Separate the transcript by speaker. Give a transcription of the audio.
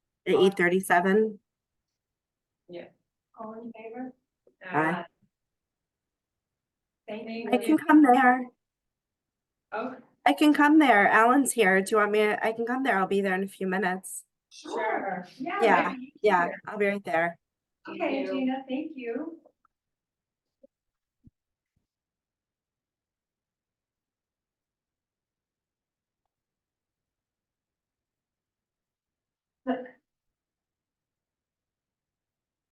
Speaker 1: at eight thirty-seven.
Speaker 2: All in favor?
Speaker 1: Aye.
Speaker 2: Thank
Speaker 1: I can
Speaker 2: you.
Speaker 1: come there.
Speaker 2: Oh,
Speaker 1: I can come there. Alan's here. Do you want me? to- I can come there. I'll be there in a few minutes.
Speaker 2: sure, yeah.
Speaker 1: Yeah,
Speaker 2: maybe you
Speaker 1: Yeah,
Speaker 2: here.
Speaker 1: I'll be right there.
Speaker 2: Okay, Gina, thank you.